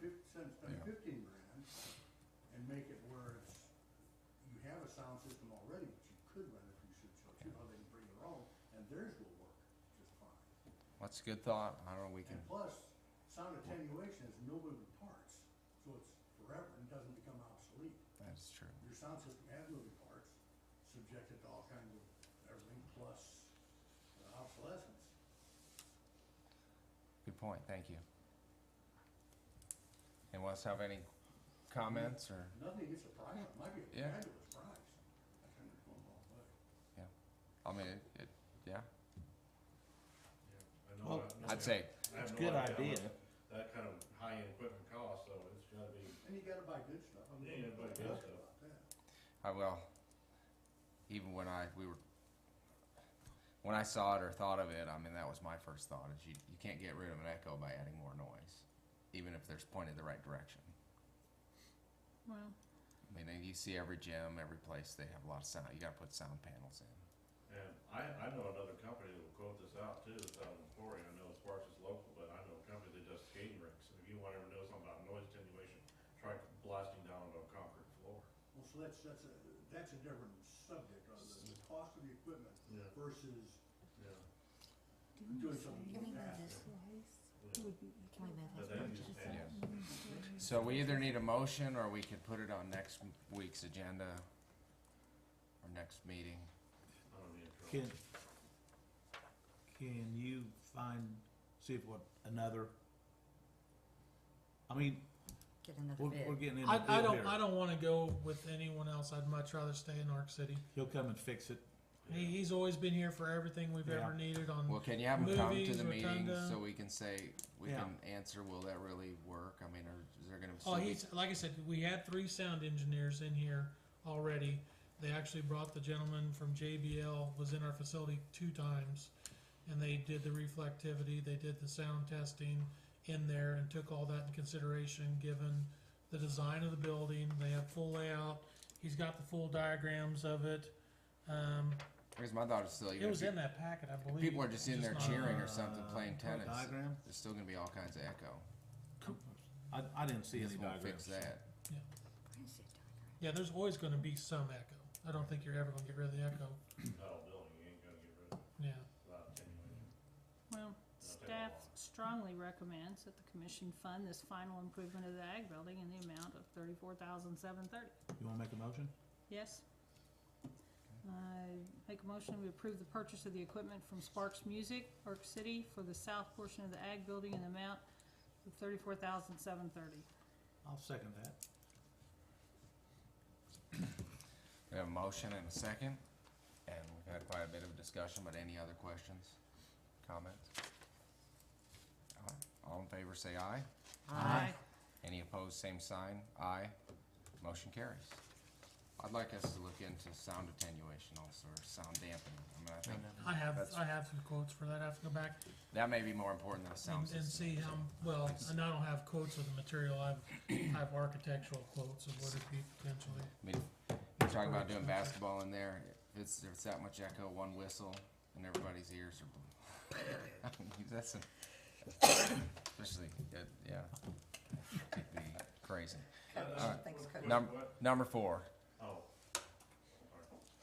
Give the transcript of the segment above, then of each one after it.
fifty cents, done Yeah. fifteen grand, and make it where it's, you have a sound system already, but you could run it if you should, so you know, they can bring their own, and theirs will work just fine. That's a good thought. I don't know, we can, And plus, sound attenuation is no moving parts, so it's forever and doesn't become obsolete. that's true. Your sound system has moving parts, subjected to all kinds of everything plus uh, obsolescence. Good point, thank you. Anyone else have any comments or, Nothing gets a price, it might be a Yeah. fabulous price. That's kind of going all the way. I mean, it, it, yeah, I know Well, that- I'd say, I have It's a no good idea how idea. much That kind of high-end equipment costs, so it's gotta be, And you gotta buy good stuff. I'm Yeah, you gotta buy good about stuff. that. I will. Even when I, we were, when I saw it or thought of it, I mean, that was my first thought, is you, you can't get rid of an echo by adding more noise, even if there's pointed the right direction. Well, I mean, and you see every gym, every place, they have a lot of sound, you gotta put sound panels in. and I, I know another company that will quote this out too, it's out in Florida, I know Sparks is local, but I know a company that does skating rinks. And If you wanna know something about noise attenuation, try blasting down on a concrete floor. Well, so that's, that's a, that's a different subject on the, the cost of the equipment Yeah. versus Yeah. doing something Can we move faster. this slice? Yeah. Would be- Can we move But this then you one just just add- a- So we either need a motion, or we could put it on next week's agenda, or next meeting. I don't need a drill. Can, can you find, see if what, another? I mean, Get another we're, bid. we're getting into I, the I bid don't here. I don't want to go with anyone else. I'd much rather stay in Arc City. He'll come and fix it. He, he's always been here for everything we've ever Yeah. needed. On Well, can you have them come to Movies, the meeting Rotunda. so we can say, we Yeah. can answer, will that really work? I mean, are, is there gonna oh, still be? he's like I said, we had three sound engineers in here already. They actually brought the gentleman from JBL was in our facility two times, and they did the reflectivity. They did the sound testing in there and took all that in consideration given the design of the building. They have full layout. He's got the full diagrams of it. Um, Because my thought is still, It even was if in that packet, I pe- believe. people are just in there Just not- cheering or something, Uh, playing a tennis, Diagram? there's still gonna be all kinds of echo. I, I didn't see This any won't fix diagrams. that. I said diagram. Yeah, there's always gonna be some echo. I don't think you're ever gonna get rid of the echo, Not all building, you ain't gonna get rid of it yeah. without attenuation. Well, staff strongly recommends that the commission fund this final improvement of the ag building in the amount of thirty-four thousand seven thirty. You wanna make a motion? Yes? I make a motion to approve the purchase of the equipment from Sparks Music, Arc City, for the south portion of the ag building in the amount of thirty-four thousand seven thirty. I'll second that. We have a motion and a second, and we've had quite a bit of discussion, but any other questions, comments? All right, All in favor, say aye. Aye. Any opposed, same sign, aye. Motion carries. I'd like us to look into sound attenuation also, or sound dampening. I mean, I think I have, That's- I have some quotes for that. I have to go back that may be more important than a and, sound and system. see how, well, and I don't have quotes of the material. I've, I have architectural quotes of what it'd be potentially. I mean, if you're talking about doing basketball in there, if it's, if it's that much echo, one whistle, and everybody's ears are. I mean, That's, a- especially, uh, yeah, it'd be crazy. Coach, thanks, coach. Number, number four, Oh.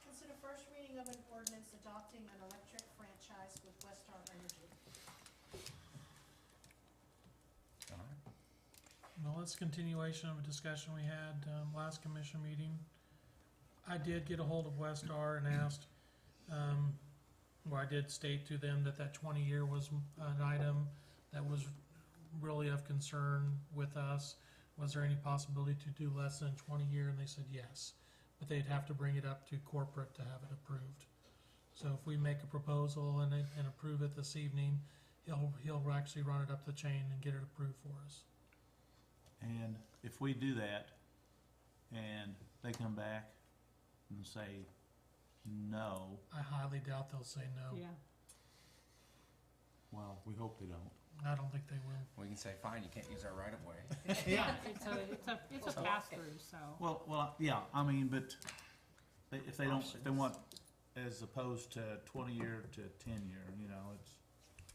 Consider first reading of an ordinance adopting an electric franchise with Westar Energy. all right. Well, it's continuation of a discussion we had, um, last commission meeting. I did get a hold of Westar and asked, um, where I did state to them that that twenty year was an item that was really of concern with us. Was there any possibility to do less than twenty year? And they said yes, but they'd have to bring it up to corporate to have it approved. So if we make a proposal and, it- and approve it this evening, he'll, he'll actually run it up the chain and get it approved for us. And if we do that, and they come back and say no, I highly doubt they'll say no. Yeah. well, we hope they don't. I don't think they will. We can say, fine, you can't use our right of way. Yeah, it's a, it's a, it's a pass-through, so. Well, well, yeah, I mean, but they- if they don't, if they want, as opposed to twenty year to ten year, you know, it's,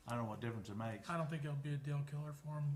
I don't know what difference it makes. I don't think it'll be a deal killer for them.